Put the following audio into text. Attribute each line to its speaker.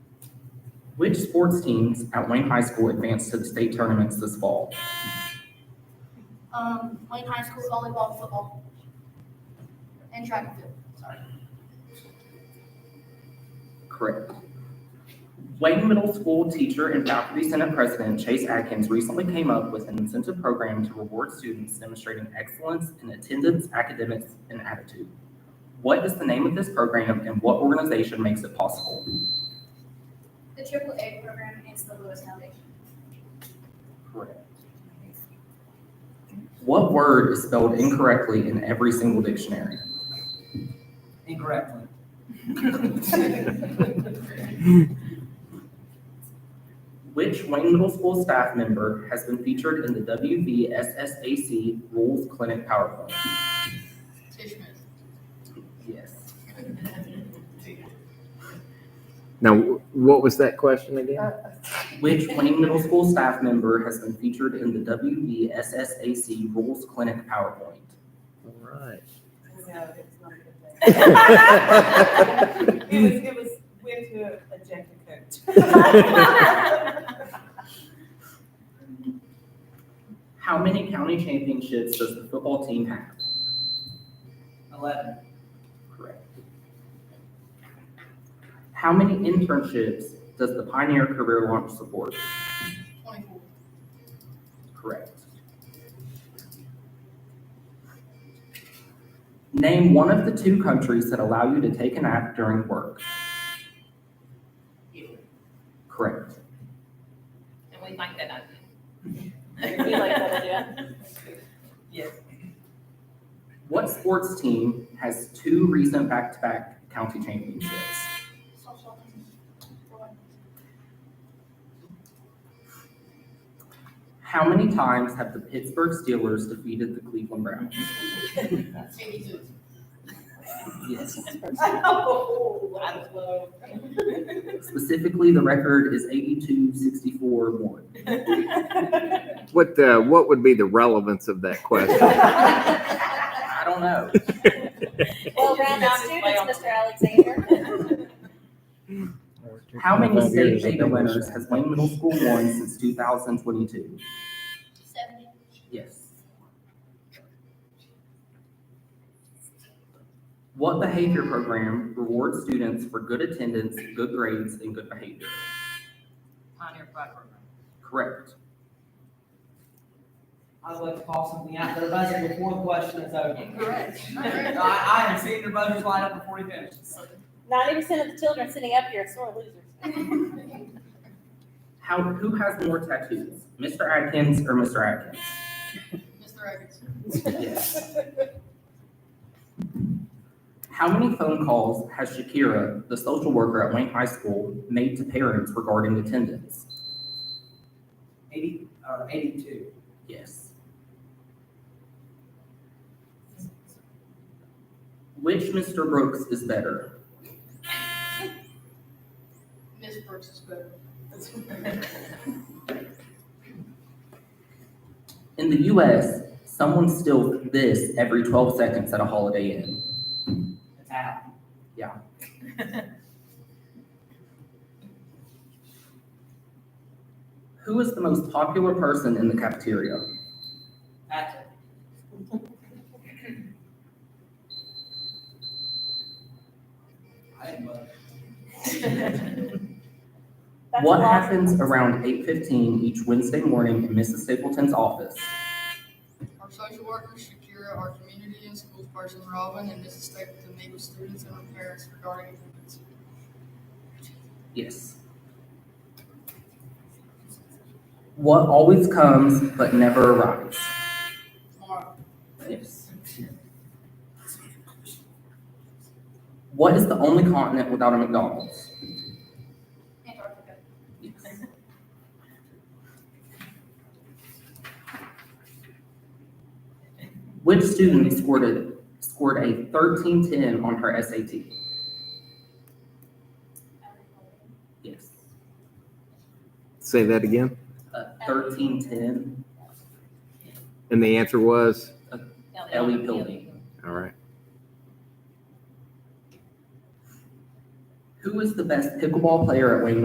Speaker 1: Which sports teams at Wayne High School advanced to the state tournaments this fall?
Speaker 2: Um, Wayne High School volleyball, football, and track and field. Sorry.
Speaker 1: Correct. Wayne Middle School teacher and faculty senate president Chase Atkins recently came up with an incentive program to reward students demonstrating excellence in attendance, academics, and attitude. What is the name of this program and what organization makes it possible?
Speaker 2: The triple A program is the Lewis Foundation.
Speaker 1: Correct. What word is spelled incorrectly in every single dictionary?
Speaker 3: Incorrectly.
Speaker 1: Which Wayne Middle School staff member has been featured in the WVSSAC Rules Clinic PowerPoint?
Speaker 2: Tish Smith.
Speaker 1: Yes.
Speaker 4: Now, what was that question again?
Speaker 1: Which Wayne Middle School staff member has been featured in the WVSSAC Rules Clinic PowerPoint?
Speaker 4: All right.
Speaker 5: It was, it was, we had to eject a coach.
Speaker 1: How many county championships does the football team have?
Speaker 3: Eleven.
Speaker 1: Correct. How many internships does the Pioneer Career Launch support?
Speaker 2: Twenty-four.
Speaker 1: Correct. Name one of the two countries that allow you to take a nap during work.
Speaker 6: And
Speaker 1: Correct.
Speaker 6: we like that idea.
Speaker 5: We like that idea.
Speaker 3: Yes.
Speaker 1: What sports team has two recent back-to-back county championships?
Speaker 2: Softball team. Four.
Speaker 1: How many times have the Pittsburgh Steelers defeated the Cleveland Browns?
Speaker 6: Eighty-two.
Speaker 1: Yes.
Speaker 5: Oh, I love.
Speaker 1: Specifically, the record is 82, 64, 1.
Speaker 4: What, uh, what would be the relevance of that question?
Speaker 1: I don't know.
Speaker 7: Well, rounded students, Mr. Alexander.
Speaker 1: How many state data winners has Wayne Middle School won since 2022?
Speaker 2: Seventy.
Speaker 1: Yes. What behavior program rewards students for good attendance, good grades, and good behavior?
Speaker 6: Pioneer Pride Program.
Speaker 1: Correct.
Speaker 3: I would like to call something out. Their buzzer before the question is over.
Speaker 6: Correct.
Speaker 3: I, I have seen their buzzers light up before he finishes.
Speaker 7: Ninety percent of the children sitting up here are sore losers.
Speaker 1: How, who has more tattoos, Mr. Atkins or Mr. Atkins?
Speaker 2: Mr. Evans.
Speaker 1: Yes. How many phone calls has Shakira, the social worker at Wayne High School, made to parents regarding attendance?
Speaker 3: Eighty, or eighty-two.
Speaker 1: Yes. Which Mr. Brooks is better?
Speaker 2: Miss Brooks is better.
Speaker 1: In the US, someone steals this every 12 seconds at a Holiday Inn.
Speaker 3: It's out.
Speaker 1: Who is the most popular person in the cafeteria?
Speaker 3: That's it. I didn't vote.
Speaker 7: That's
Speaker 1: what
Speaker 7: a lot.
Speaker 1: happens around 8:15 each Wednesday morning in Mrs. Stapleton's office?
Speaker 8: Our social worker, Shakira, our community and schools person, Robin, and Mrs. Stapleton meet with students and their parents regarding attendance.
Speaker 1: Yes. What always comes but never arrives?
Speaker 8: Tomorrow,
Speaker 1: Yes. What is the only continent without a McDonald's?
Speaker 2: Antarctica.
Speaker 1: Yes. Which student scored a, scored a thirteen ten on her SAT? Yes.
Speaker 4: Say that again.
Speaker 1: A thirteen ten,
Speaker 4: And the answer was?
Speaker 1: Ellie Pilley.
Speaker 4: All right.
Speaker 1: Who is the best pickleball player at Wayne